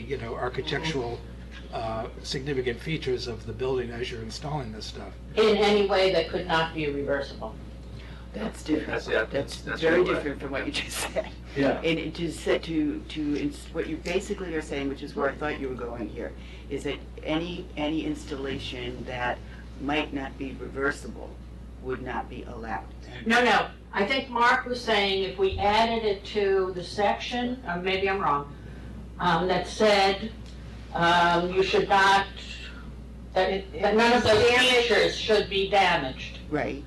you know, architectural uh, significant features of the building as you're installing this stuff. in any way that could not be reversible. That's different. That's- yeah, That's that's very what I- different from what you just said. Yeah. And it to say, to, to, ins- what you basically are saying, which is where I thought you were going here, is that any, any installation that might not be reversible would not be allowed. No, no, I think Mark was saying if we added it to the section, or maybe I'm wrong, um, that said, um, you should not, that, that none of those features should be damaged Right.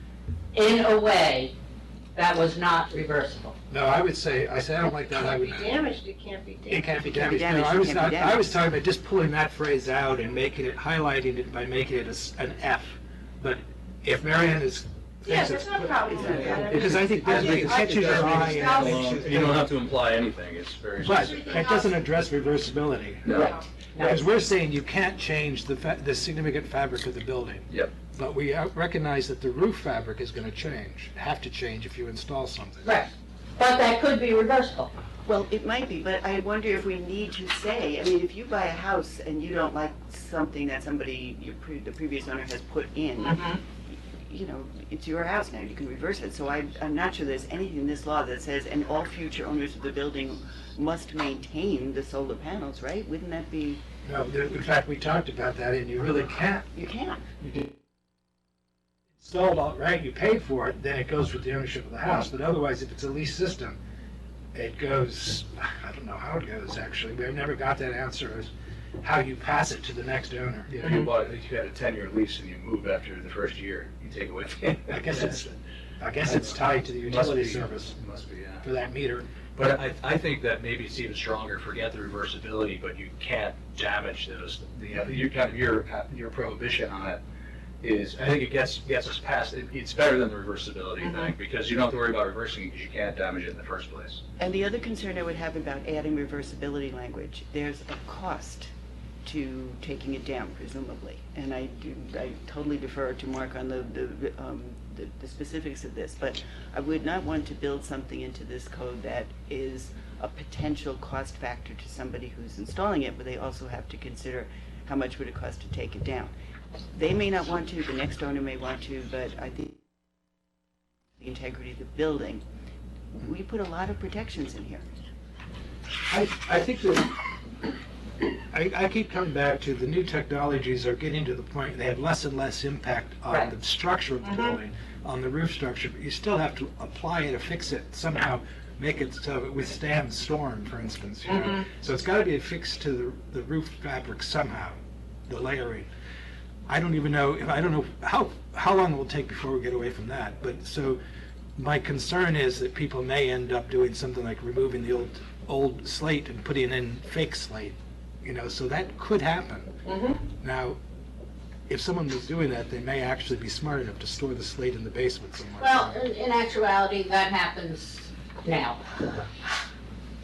in a way that was not reversible. No, I would say, I say, I don't like that, I would. It can't be damaged, it can't be It damaged. can't be Can't be damaged. No, damaged, I was, can't not- be I was talking about just pulling that phrase out and making it, highlighting it by making it a s an F. But if Marianne is. Yeah, thinks there's it's- no problem with that. Because I think that I think- the catches I are think high it's and. thousand- it's- You don't have to imply anything, it's very But specific. that doesn't address reversibility. No, Because we're saying you can't change the, fa- the significant fabric of the building. Yep. But we out- recognize that the roof fabric is going to change, have to change if you install something. Right. But that could be reversible. Well, it might be, but I wonder if we need to say, I mean, if you buy a house and you don't like something that somebody, your pre, the previous owner has put in, you know, it's your house now, you can reverse it, so I, I'm not sure there's anything in this law that says, and all future owners of the building must maintain the solar panels, right? Wouldn't that be, No, there- in fact, we talked about that, and you really can't you can't. installed all right, you paid for it, then it goes with the ownership of the house. But otherwise, if it's a lease system, it goes, I don't know how it goes, actually. We've never got that answer as how you pass it to the next owner. you know, you bought, you had a ten-year lease and you move after the first year, you take away. the- I guess it's, I guess it's tied to the utility Must be- service Must be, yeah. for that meter. But I, I think that maybe it's even stronger, forget the reversibility, but you can't damage those, the, your, kind of your, your prohibition on it is, I think it gets, gets us past, it- it's better than the reversibility thing, because you don't have to worry about reversing it, because you can't damage it in the first place. And the other concern I would have about adding reversibility language, there's a cost to taking it down presumably. And I do, I totally defer to Mark on the, the, um, the the specifics of this, but I would not want to build something into this code that is a potential cost factor to somebody who's installing it, but they also have to consider how much would it cost to take it down. They may not want to, the next owner may want to, but I think the integrity of the building we put a lot of protections in here. I, I think that, I, I keep coming back to the new technologies are getting to the point, they have less and less impact on Right. the structure of the building, on the roof structure, but you still have to apply it or fix it somehow, make it so it withstands storm, for instance, you know? So it's gotta be affixed to the, the roof fabric somehow, the layering. I don't even know, if I don't know how, how long it will take before we get away from that, but so, my concern is that people may end up doing something like removing the old, old slate and putting in fake slate, you know, so that could happen. Mm-hmm. Now, if someone was doing that, they may actually be smart enough to store the slate in the basement somewhere. Well, uh, in, in actuality, that happens now.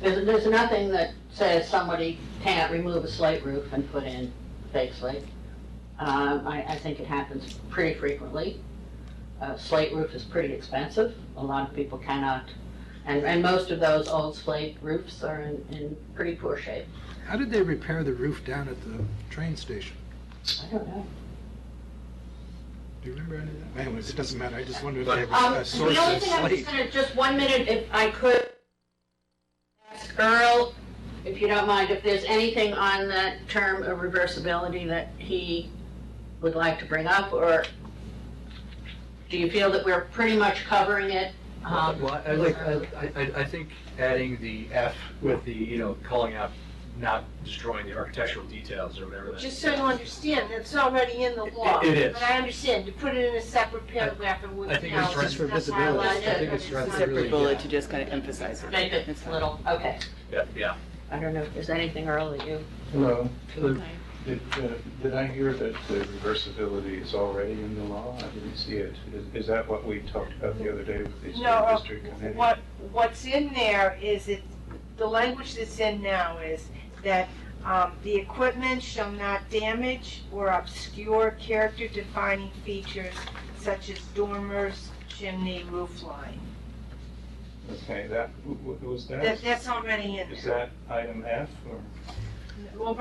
There's, there's nothing that says somebody can't remove a slate roof and put in fake slate. Um, I, I think it happens pretty frequently. Uh, slate roof is pretty expensive, a lot of people cannot, and, and most of those old slate roofs are in, in pretty poor shape. How did they repair the roof down at the train station? I don't know. Do you remember any of that? Anyways, it doesn't matter, I just wondered if they Um, have a source The only of thing I was slate. gonna, just one minute, if I could, ask Earl, if you don't mind, if there's anything on that term of reversibility that he would like to bring up, or do you feel that we're pretty much covering it? Um, Well, I like, I, I, I think adding the F with the, you know, calling out, not destroying the architectural details or whatever that. Just so you understand, that's already in the law. It- it is. But I understand, to put it in a separate paragraph, it wouldn't I help. think it's right for That's why I visibility. like I it, think but it's right not- for Really, Separate bullet yeah. to just kind of emphasize it. Make it That's fine. little, okay. Yeah, yeah. I don't know if there's anything, Earl, that you, Hello. Did, uh, did I hear that the reversibility is already in the law? I didn't see it. Is, is that what we talked about the other day with the No, school uh, district committee? What, what's in there is it, the language that's in now is that um, the equipment shall not damage or obscure character-defining features such as dormers, chimney, roof line. Okay, that, w- w- was that, That, that's already in is there. that item F or? well,